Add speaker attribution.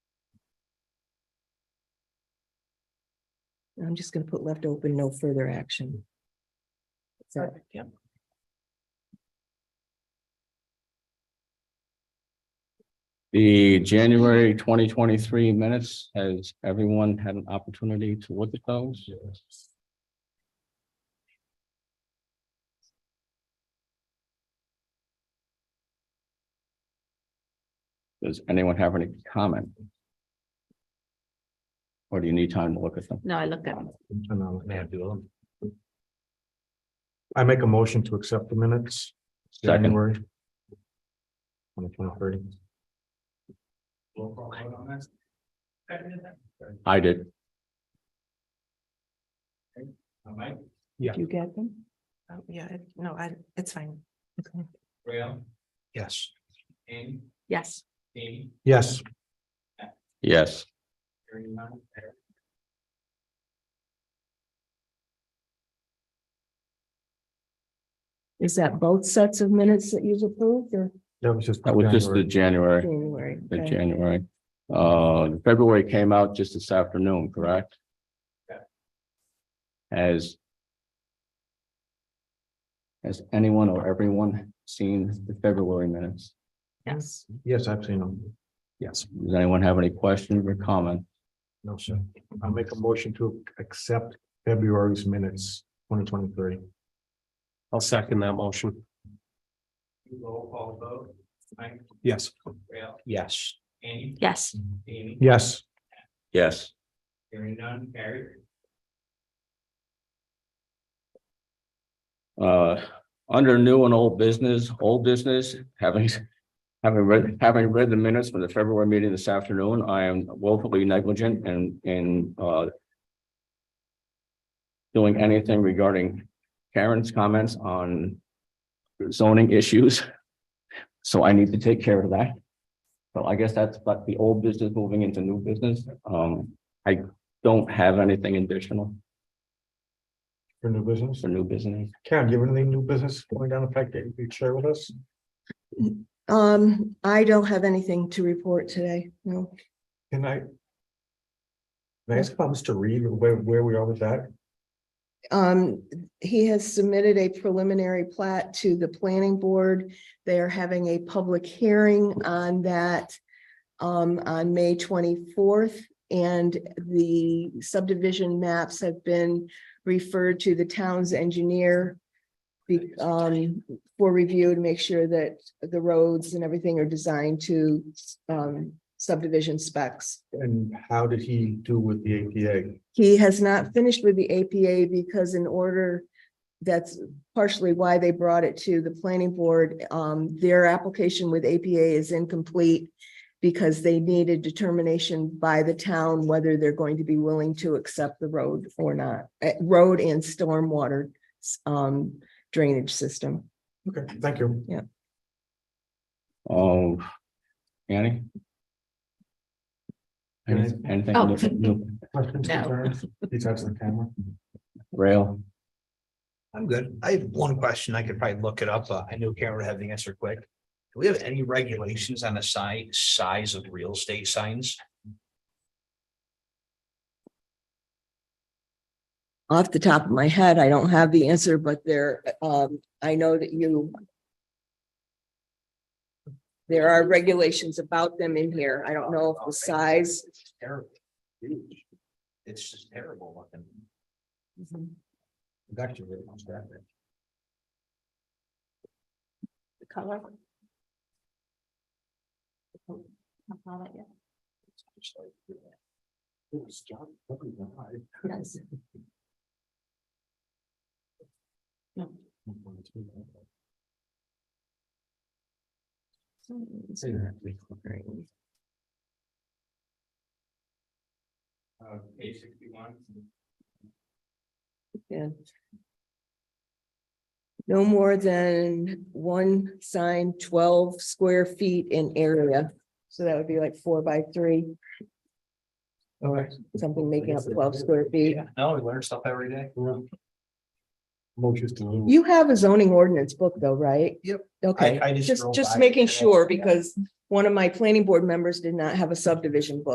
Speaker 1: I'm just gonna put left open, no further action. So, yeah.
Speaker 2: The January twenty twenty-three minutes, has everyone had an opportunity to look at those? Does anyone have any comment? Or do you need time to look at them?
Speaker 3: No, I looked at them.
Speaker 4: And I'll may I do them? I make a motion to accept the minutes.
Speaker 2: Second.
Speaker 4: January. Twenty twenty thirty.
Speaker 2: I did.
Speaker 4: Mike,
Speaker 1: Do you get them? Um, Yeah, I- no, I, it's fine. Okay.
Speaker 4: Yes.
Speaker 3: Yes,
Speaker 4: Yes,
Speaker 2: Yes,
Speaker 1: Is that both sets of minutes that you've approved or
Speaker 4: that was just.
Speaker 2: that was just the
Speaker 4: January.
Speaker 2: January,
Speaker 1: January?
Speaker 2: the
Speaker 1: Okay.
Speaker 2: January. Uh, February came out just this afternoon, correct? Has has anyone or everyone seen the February minutes?
Speaker 3: yes.
Speaker 4: Yes, I've seen them. Yes,
Speaker 2: Does anyone have any questions or comment?
Speaker 4: no, sir. I make a motion to accept February's minutes, twenty twenty three. I'll second that motion.
Speaker 5: Roll call vote, Mike,
Speaker 4: Yes.
Speaker 5: Rail,
Speaker 4: Yes.
Speaker 5: Annie,
Speaker 3: Yes,
Speaker 5: Amy,
Speaker 4: Yes,
Speaker 2: Yes.
Speaker 5: hearing none, carried.
Speaker 2: Uh, under new and old business, old business, having having read, having read the minutes from the February meeting this afternoon, I am woefully negligent and in uh doing anything regarding Karen's comments on zoning issues. So I need to take care of that. So I guess that's like the old business moving into new business. Um, I don't have anything additional
Speaker 4: for new business.
Speaker 2: for new business.
Speaker 4: Karen, do you have anything new business going down the fact that you could share with us?
Speaker 1: Um, I don't have anything to report today, no.
Speaker 4: Can I? May I ask about Mr. Reed, where, where we are with that?
Speaker 1: Um, he has submitted a preliminary plat to the planning board. They are having a public hearing on that um, on May twenty-fourth, and the subdivision maps have been referred to the town's engineer be- um, for review to make sure that the roads and everything are designed to um, subdivision specs.
Speaker 4: And how did he do with the APA?
Speaker 1: He has not finished with the APA because in order, that's partially why they brought it to the planning board. Um, their application with APA is incomplete because they need a determination by the town whether they're going to be willing to accept the road or not, eh, road and stormwater um, drainage system.
Speaker 4: Okay, thank you.
Speaker 2: Oh, Annie?
Speaker 4: Can I-
Speaker 2: Anything- Anything?
Speaker 3: Oh.
Speaker 2: look- look,
Speaker 4: Questions,
Speaker 3: No.
Speaker 4: concerns? He touched the camera.
Speaker 2: Rail,
Speaker 6: I'm good. I have one question. I could probably look it up. Uh, I knew Karen would have the answer quick. Do we have any regulations on the size, size of real estate signs?
Speaker 1: Off the top of my head, I don't have the answer, but there, um, I know that you. There are regulations about them in here. I don't know if the Oh, size.
Speaker 6: It's terrible. Huge. It's just terrible looking.
Speaker 3: Mm-hmm.
Speaker 6: It's actually really much that big.
Speaker 3: the color. I saw that, yeah.
Speaker 6: It's just like, yeah.
Speaker 4: It was John, probably the high.
Speaker 3: Yes. No. Mm-hmm.
Speaker 5: Uh, page sixty-one,
Speaker 1: Yeah. No more than one sign twelve square feet in area. So that would be like four by three,
Speaker 4: All right.
Speaker 1: something making up twelve square feet.
Speaker 6: No, we learn stuff every day.
Speaker 4: Motion's to.
Speaker 1: You have a zoning ordinance book though, right?
Speaker 6: Yep.
Speaker 1: Okay,
Speaker 6: I- I just
Speaker 1: just,
Speaker 6: drove
Speaker 1: just
Speaker 6: by
Speaker 1: making
Speaker 6: and I-
Speaker 1: sure
Speaker 6: yeah.
Speaker 1: because one of my planning board members did not have a subdivision book.